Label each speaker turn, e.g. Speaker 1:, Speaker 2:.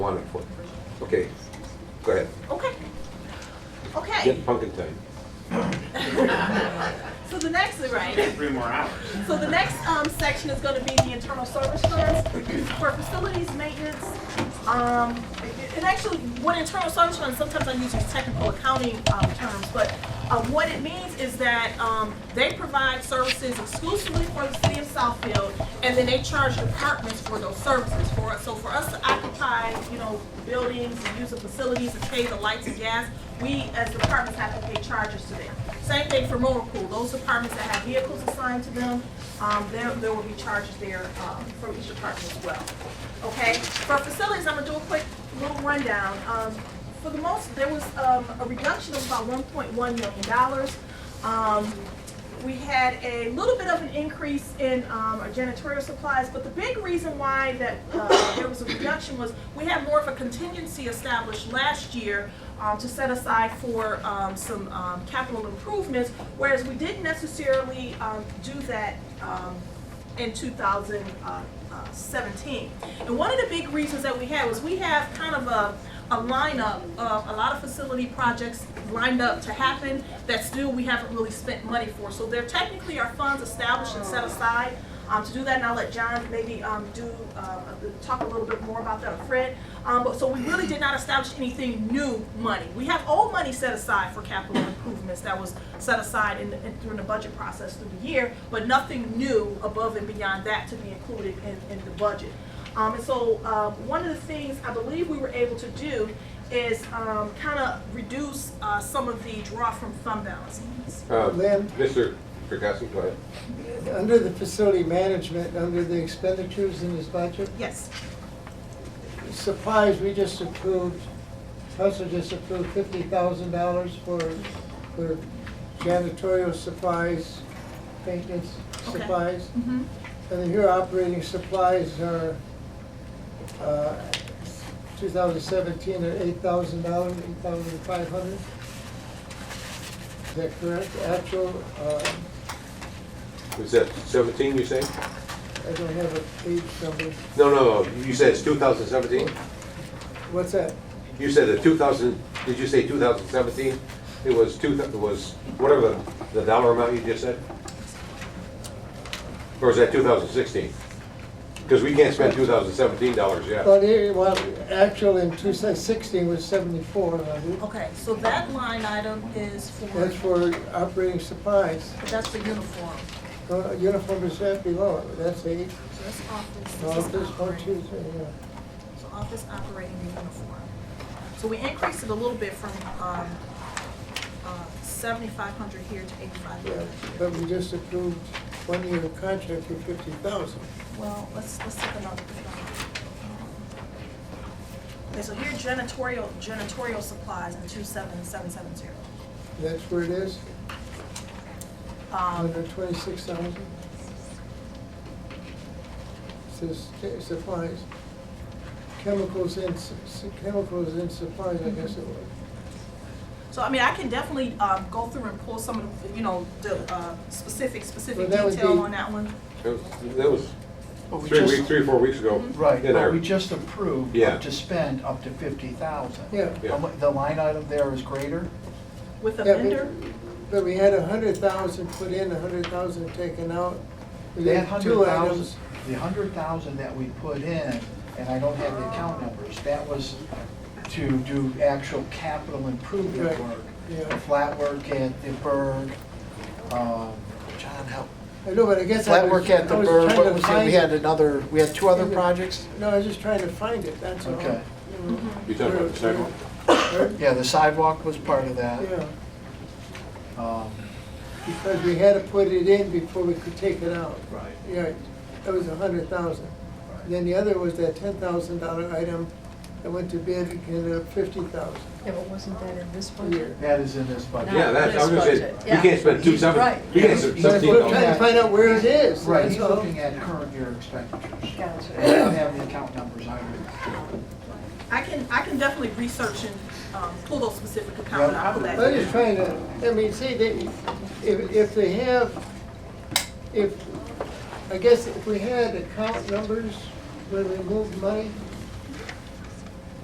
Speaker 1: Wanted for. Okay, go ahead.
Speaker 2: Okay. Okay.
Speaker 1: Get pumpkin time.
Speaker 2: So the next, right,
Speaker 3: three more hours.
Speaker 2: so the next, um, section is gonna be the internal service funds for facilities maintenance. Um, it- and actually, what internal service funds, sometimes I use these technical accounting, um, terms, but, uh, what it means is that, um, they provide services exclusively for the city of Southfield, and then they charge departments for those services for us. So for us to occupy, you know, buildings and use the facilities and pay the lights and gas, we as departments have to pay charges to them. Same thing for motor pool, those departments that have vehicles assigned to them, um, there, there will be charges there, um, from each department as well. Okay, for facilities, I'm gonna do a quick little rundown. Um, for the most, there was, um, a reduction of about one point one million dollars. Um, we had a little bit of an increase in um, our janitorial supplies, but the big reason why that uh, there was a reduction was we had more of a contingency established last year um, to set aside for um, some um, capital improvements, whereas we didn't necessarily um, do that um, in 2017. uh, And one of the big reasons that we had was we have kind of a, a lineup of a lot of facility projects lined up to happen that still we haven't really spent money for. So there technically are funds established and set aside um, to do that, and I'll let John maybe um, do, uh, talk a little bit more about that, or Fred. Um, But, so we really did not establish anything new money. We have old money set aside for capital improvements that was set aside in, in- during the budget process through the year, but nothing new above and beyond that to be included in, in the budget. Um, and so, um, one of the things I believe we were able to do is, um, kind of reduce, uh, some of the draw from fund balance.
Speaker 1: Uh,
Speaker 4: Lynn?
Speaker 1: Mr. Kirkowski, go ahead.
Speaker 4: Under the facility management, under the expenditures in this budget,
Speaker 2: Yes,
Speaker 4: supplies, we just approved, council just approved fifty thousand dollars for, for janitorial supplies, maintenance
Speaker 2: Okay.
Speaker 4: supplies.
Speaker 2: Mhm.
Speaker 4: And then here operating supplies are, uh, two thousand seventeen are eight thousand dollars, eight thousand five hundred. Is that correct? Actual, uh,
Speaker 1: Was that seventeen you say?
Speaker 4: I don't have a page number.
Speaker 1: No, no, no, you said it's two thousand seventeen?
Speaker 4: What's that?
Speaker 1: You said the two thousand, did you say two thousand seventeen? It was two, thou- it was whatever the dollar amount you just said? Or is that two thousand sixteen? Because we can't spend two thousand seventeen dollars yet.
Speaker 4: Well, it, well, actual in two sixteen was seventy-four hundred.
Speaker 2: okay, so that line item is for.
Speaker 4: That's for operating supplies.
Speaker 2: But that's the uniform.
Speaker 4: Uh, Uniform is that below, it. that's eight,
Speaker 2: So that's office. this is
Speaker 4: office, one,
Speaker 2: operating.
Speaker 4: two, three, yeah.
Speaker 2: So office operating the uniform. So we increased it a little bit from, um, uh, seventy-five hundred here to eighty-five
Speaker 4: Yeah,
Speaker 2: hundred.
Speaker 4: But we just approved one year contract for fifty thousand.
Speaker 2: Well, let's, let's take another. Okay, so here janitorial, janitorial supplies in two seven, seven, seven, zero.
Speaker 4: That's where it is,
Speaker 2: Um,
Speaker 4: under twenty-six thousand. Says uh, supplies, chemicals and, s- s- chemicals and supplies, I guess it was.
Speaker 2: so I mean, I can definitely, um, go through and pull some of, the you know, the, uh, specific, specific
Speaker 4: Well, that would
Speaker 2: detail
Speaker 4: be-
Speaker 2: on that one.
Speaker 1: That was- That was
Speaker 5: But we
Speaker 1: three
Speaker 5: just-
Speaker 1: weeks, three, or four weeks ago.
Speaker 5: Right,
Speaker 1: in our-
Speaker 5: but we just approved
Speaker 1: Yeah.
Speaker 5: up to spend up to fifty thousand.
Speaker 4: Yeah.
Speaker 1: Yeah.
Speaker 5: The line item there is greater?
Speaker 2: With a
Speaker 4: Yeah, but-
Speaker 2: vendor,
Speaker 4: But we had a hundred thousand put in, a hundred thousand taken out. We
Speaker 5: That
Speaker 4: had
Speaker 5: hundred
Speaker 4: two
Speaker 5: thousand,
Speaker 4: items.
Speaker 5: the hundred thousand that we put in, and I don't have the account numbers, that was to do actual capital improvement
Speaker 4: Right,
Speaker 5: work.
Speaker 4: yeah.
Speaker 5: The flat work at the Berg, um, John, help.
Speaker 4: I know, but I guess I
Speaker 5: Flat
Speaker 4: was.
Speaker 5: work at
Speaker 4: I
Speaker 5: the
Speaker 4: was
Speaker 5: Berg,
Speaker 4: trying
Speaker 5: what
Speaker 4: to
Speaker 5: was it,
Speaker 4: find
Speaker 5: we had another, we had two other
Speaker 4: Yeah.
Speaker 5: projects?
Speaker 4: No, I was just trying to find it, that's all.
Speaker 5: Okay.
Speaker 4: You know.
Speaker 1: You talking about the second one?
Speaker 4: Pardon?
Speaker 5: Yeah, the sidewalk was part of that.
Speaker 4: Yeah,
Speaker 5: Um,
Speaker 4: because we had to put it in before we could take it out.
Speaker 5: Right.
Speaker 4: Yeah, that was a hundred thousand.
Speaker 5: Right.
Speaker 4: Then the other was that ten thousand dollar item that went to bid, and ended up fifty thousand
Speaker 6: Yeah, but wasn't that in this
Speaker 4: a
Speaker 6: budget?
Speaker 4: year.
Speaker 5: That is in this budget.
Speaker 1: Yeah, that's, I was gonna say,
Speaker 6: Budget,
Speaker 1: we
Speaker 6: yeah.
Speaker 1: can't spend two seven,
Speaker 6: Right.
Speaker 1: we can't spend
Speaker 5: He's
Speaker 4: But
Speaker 1: seventeen
Speaker 4: we're
Speaker 5: looking
Speaker 4: trying
Speaker 1: dollars.
Speaker 4: to find out where it is,
Speaker 5: Right,
Speaker 4: that's
Speaker 5: he's
Speaker 4: all.
Speaker 5: looking at current year expenditures.
Speaker 6: Gotcha.
Speaker 5: I don't have the account numbers either.
Speaker 2: I can, I can definitely research and, um, pull those specific
Speaker 5: Yeah,
Speaker 2: accounts out of that.
Speaker 5: I
Speaker 4: I'm just trying to, I mean, see, they, if, if they have, if, I guess if we had account numbers when we moved money,